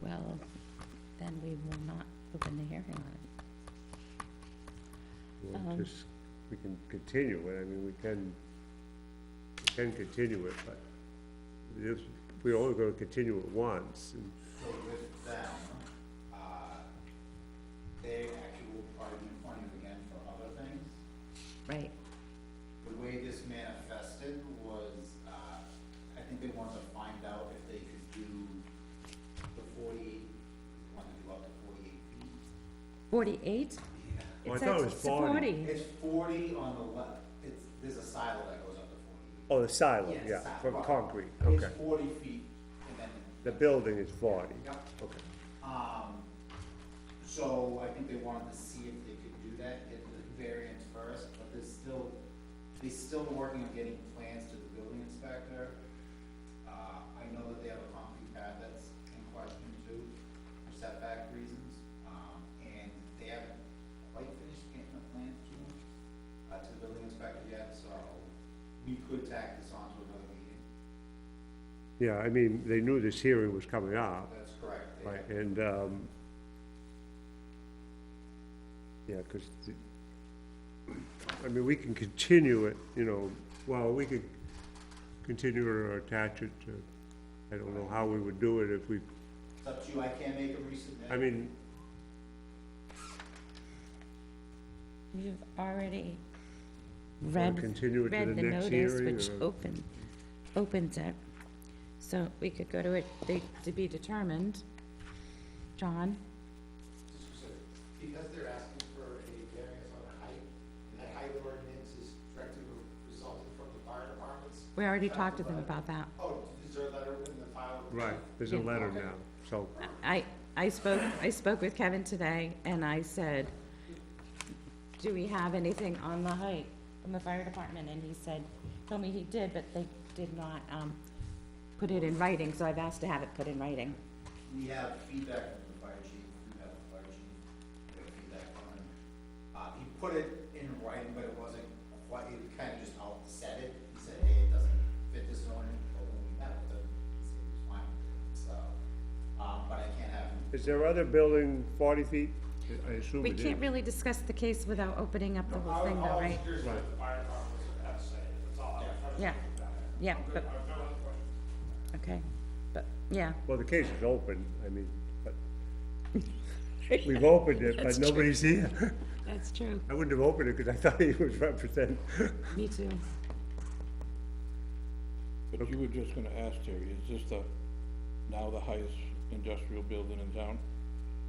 well, then we will not open the hearing on it. We'll just, we can continue it, I mean, we can, we can continue it, but this, we're only gonna continue it once, and So with them, uh, they actually will probably be funded again for other things. Right, The way this manifested was, uh, I think they wanted to find out if they could do the forty, wanted to do up to forty-eight feet. forty-eight? Well, Oh, I thought it was 40. It's forty on the left, it's, there's a silo that goes up to forty. oh, the silo, Yes, yeah, silo. from concrete, It's okay. forty feet and then. The building is forty, Yep. okay. Um, so I think they wanted to see if they could do that, get the variance first, but there's still, they're still working on getting plans to the building inspector. Uh, I know that they have a concrete pad that's in question too, for setback reasons, um, and they haven't quite finished getting the plans to them, uh, to the building inspector yet, so we could tack this on to another meeting, Yeah, I mean, they knew this hearing was coming up, that's correct. They- Right, and, um, yeah, because, I mean, we can continue it, you know, well, we could continue or attach it to, I don't know how we would do it if we, It's up to you, I can't make a resubmit. I mean, You've already or read, continue it to read the the next notice, hearing, which or, open, opens it. So we could go to it, they, to be determined. John, Because they're asking for a variance on height, and that height ordinance is directly resulting from the fire departments. we already talked to them about that. Oh, is there a letter in the file? right, there's a Yeah. letter now, so, I, I spoke, I spoke with Kevin today, and I said, do we have anything on the height from the fire department? And he said, told me he did, but they did not, um, put it in writing, so I've asked to have it put in writing. We have feedback from the fire chief, we have the fire chief, we have feedback from him. Uh, he put it in writing, but it wasn't quite, he kind of just out said it, he said, hey, it doesn't fit this zoning, but when we met with him, he said it was fine, so, um, but I can't have him. is there other building forty feet? I- I assume We it is. can't really discuss the case without opening up the whole thing though, right? Here's what the fire departments have to say, that's all I'm trying to Yeah, yeah, but, I've got one question. okay, but, yeah, Well, the case is open, I mean, but, we've opened it, but nobody's here. that's true, I wouldn't have opened it because I thought he was representing. me too. But you were just gonna ask Terry, is this the, now the highest industrial building in town?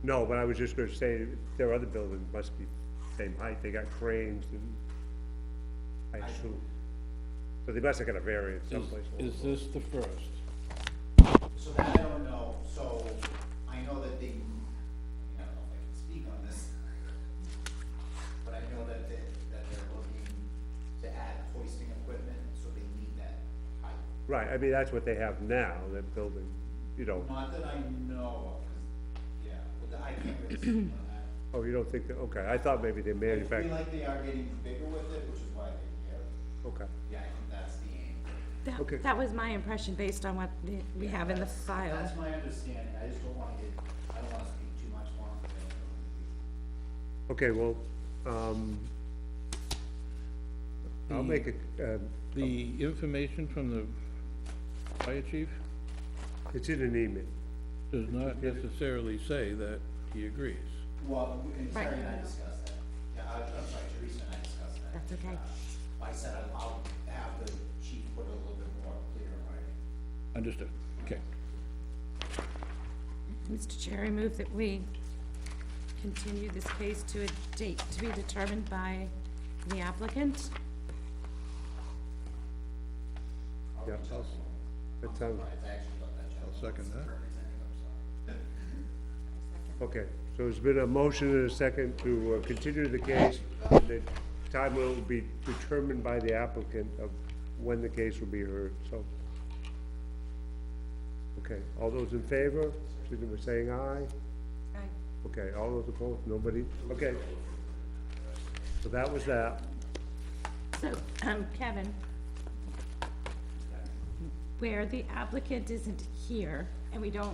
No, but I was just gonna say, their other buildings must be same height, they got cranes and I assume. So they must have got a variance Is, someplace. is this the first? So that I don't know, so I know that they, I mean, I don't know if I can speak on this, but I know that they, that they're looking to add hoisting equipment, so they need that height. Right, I mean, that's what they have now, they're building, you know, Not that I know of, 'cause, yeah, but the- I can't really speak on that. oh, you don't think, that? okay, I thought maybe they I feel manufactured, like they are getting bigger with it, which is why they care. okay. Yeah, I think that's the aim. Okay. That, that was my impression based on what the- we have in the That's- file. That's my understanding, I just don't wanna get, I don't wanna speak too much more. Okay, well, um, I'll make a, um, The information from the fire chief it's in an email. does not necessarily say that he agrees. Well, we- and Right. Terry and I discussed that. Yeah, I, I'm sorry, Teresa and I discussed that. That's okay. Uh, I said I'll- I'll have the chief put a little bit more clear in writing. Understood, okay. Mr. Chair, I move that we continue this case to a date to be determined by the applicant. Yeah, I'll- That sounds, But it's actually about that gentleman. second that. Representing, I'm sorry. Okay, so there's been a motion and a second to uh, continue the case. and The time will be determined by the applicant of when the case will be heard, so. Okay, all those in favor, signal by saying aye. Okay, all those opposed, nobody? Okay. So that was that. So, um, Kevin, where the applicant isn't here, and we don't